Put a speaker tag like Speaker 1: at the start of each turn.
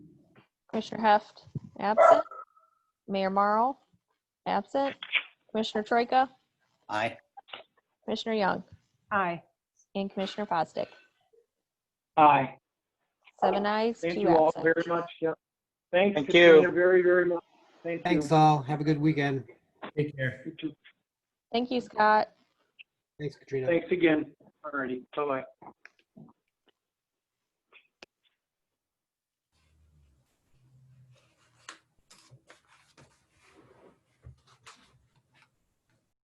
Speaker 1: Commissioner Heft, absent. Mayor Marl, absent. Commissioner Troika,
Speaker 2: Aye.
Speaker 1: Commissioner Young,
Speaker 3: Aye.
Speaker 1: and Commissioner Posdick.
Speaker 4: Aye.
Speaker 1: Seven ayes,
Speaker 4: Thank
Speaker 1: two
Speaker 4: you all
Speaker 1: absent.
Speaker 4: very much. Yep. Thanks.
Speaker 5: Thank
Speaker 4: Katrina,
Speaker 5: you.
Speaker 4: Very, very much. Thank you.
Speaker 5: Thanks all. Have a good weekend.
Speaker 6: Take care.
Speaker 4: You too.
Speaker 1: Thank you, Scott.
Speaker 5: Thanks, Katrina.
Speaker 4: Thanks again. Alrighty. Bye-bye.